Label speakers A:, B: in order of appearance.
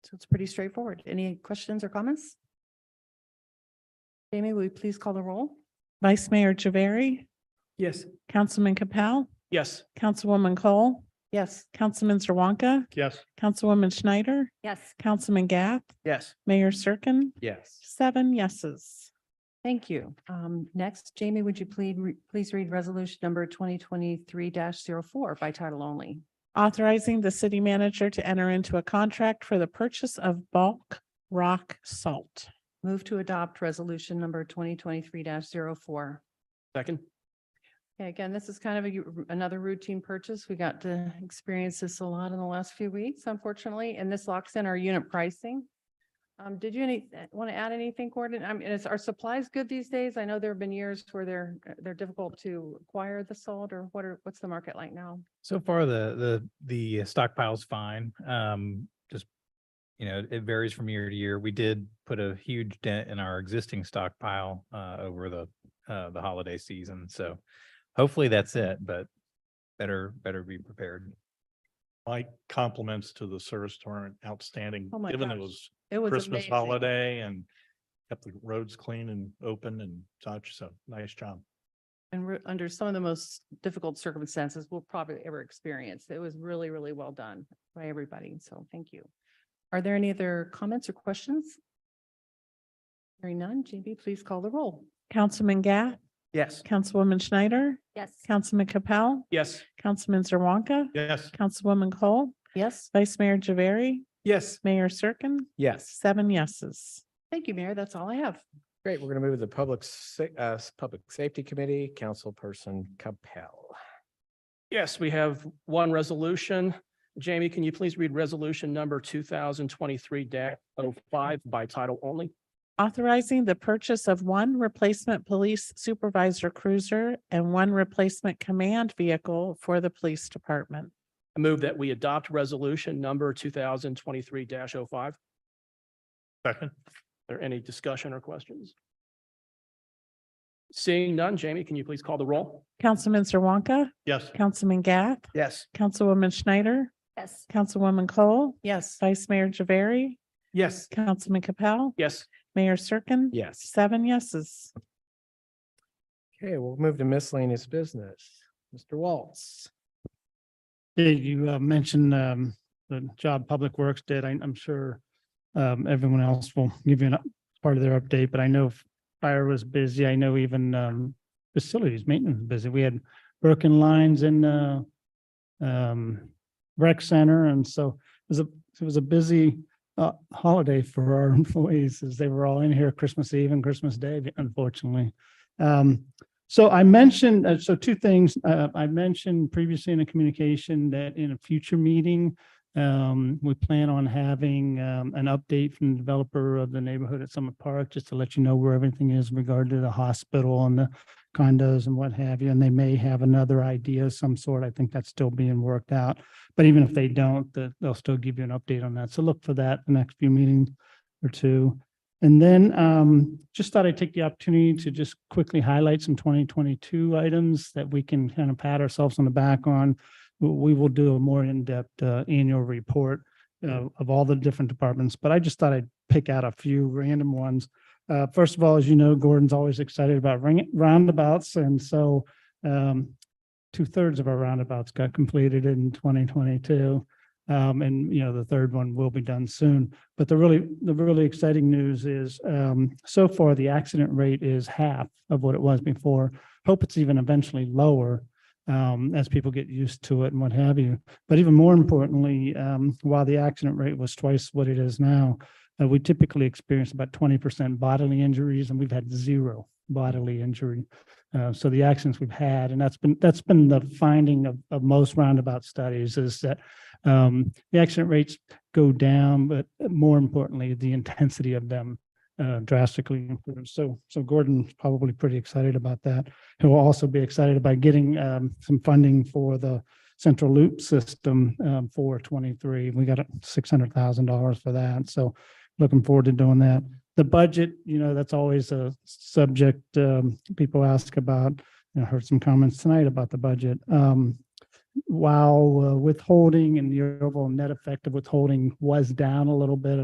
A: So it's pretty straightforward. Any questions or comments? Jamie, will you please call the roll?
B: Vice Mayor Javari,
C: Yes.
B: Councilman Capel,
C: Yes.
B: Councilwoman Cole,
A: Yes.
B: Councilman Zerwanka,
C: Yes.
B: Councilwoman Schneider,
A: Yes.
B: Councilman Gath,
C: Yes.
B: Mayor Cirkin,
C: Yes.
B: seven yeses.
A: Thank you. Um, next, Jamie, would you please, please read resolution number twenty twenty-three 4 by title only?
B: Authorizing the city manager to enter into a contract for the purchase of bulk rock salt.
A: Move to adopt resolution number twenty twenty-three 4
C: Second.
A: Okay, again, this is kind of a u- another routine purchase. We got to experience this a lot in the last few weeks, unfortunately, and this locks in our unit pricing. Um, did you any, want to add anything, Gordon? I mean, is our supplies good these days? I know there have been years where they're, eh, they're difficult to acquire the salt or what are, what's the market like now?
D: So far, the, the, the stockpile's fine. Um, just, you know, it varies from year to year. We did put a huge dent in our existing stockpile, uh, over the, uh, the holiday season. So hopefully that's it, but better, better be prepared.
E: My compliments to the service department, outstanding,
A: Oh my
E: given
A: gosh.
E: it was
A: It was
E: Christmas
A: amazing.
E: holiday and kept the roads clean and open and such, so nice job.
A: And we're under some of the most difficult circumstances we'll probably ever experience. It was really, really well done by everybody. So thank you. Are there any other comments or questions? Hearing none, JB, please call the roll.
B: Councilman Gath,
C: Yes.
B: Councilwoman Schneider,
A: Yes.
B: Councilman Capel,
C: Yes.
B: Councilman Zerwanka,
E: Yes,
B: Councilwoman Cole,
A: Yes,
B: Vice Mayor Javari,
C: Yes.
B: Mayor Cirkin,
C: Yes.
B: seven yeses.
A: thank you, Mayor. That's all I have.
C: Great. We're going to move to the Public, Sa- uh, Public Safety Committee, Councilperson Capel.
F: Yes, we have one resolution. Jamie, can you please read resolution number two thousand twenty-three 5 by title only?
B: Authorizing the purchase of one replacement police supervisor cruiser and one replacement command vehicle for the police department.
F: I move that we adopt resolution number two thousand twenty-three 5 Are
E: second,
F: there any discussion or questions? Seeing none, Jamie, can you please call the roll?
B: Councilman Zerwanka,
E: yes,
B: Councilman Gath,
C: Yes.
B: Councilwoman Schneider. Yes. Councilwoman Cole,
A: Yes,
B: Vice Mayor Javari,
C: Yes.
B: Councilman Capel,
F: Yes,
B: Mayor Cirkin.
C: Yes.
B: Seven yeses.
C: Okay, we'll move to miscellaneous business. Mr. Waltz.
G: Dave, you uh, mentioned um, the job Public Works did. I- I'm sure um, everyone else will give you a part of their update, but I know f- fire was busy. I know even um, facilities maintenance was busy. We had broken lines in uh, um, rec center, and so it was a, it was a busy uh, holiday for our employees as they were all in here Christmas Eve and Christmas Day, unfortunately. Um, so I mentioned, uh, so two things, uh, I mentioned previously in a communication that in a future meeting, um, we plan on having, um, an update from the developer of the neighborhood at Summit Park, just to let you know where everything is in regard to the hospital and the condos and what have you, and they may have another idea of some sort. I think that's still being worked out. But even if they don't, the- they'll still give you an update on that. So look for that the next few meetings or two. And then um, just thought I'd take the opportunity to just quickly highlight some twenty twenty-two items that we can kind of pat ourselves on the back on. W- We will do a more in-depth uh, annual report uh, of all the different departments, but I just thought I'd pick out a few random ones. Uh, First of all, as you know, Gordon's always excited about ring- roundabouts, and so um, two-thirds of our roundabouts got completed in twenty twenty-two. um, And, you know, the third one will be done soon. But the really, the really exciting news is, um, so far, the accident rate is half of what it was before. Hope it's even eventually lower, um, as people get used to it and what have you. But even more importantly, um, while the accident rate was twice what it is now, uh, we typically experience about twenty percent bodily injuries, and we've had zero bodily injury. Uh, so the accidents we've had, and that's been, that's been the finding of, of most roundabout studies is that, um, the accident rates go down, but more importantly, the intensity of them uh, drastically improves. So, so Gordon's probably pretty excited about that. He'll also be excited about getting um, some funding for the central loop system um, for 23. We got $600,000 for that. So looking forward to doing that. The budget, you know, that's always a subject um, people ask about. You know, heard some comments tonight about the budget. Um, while uh, withholding and the overall net effect of withholding was down a little bit,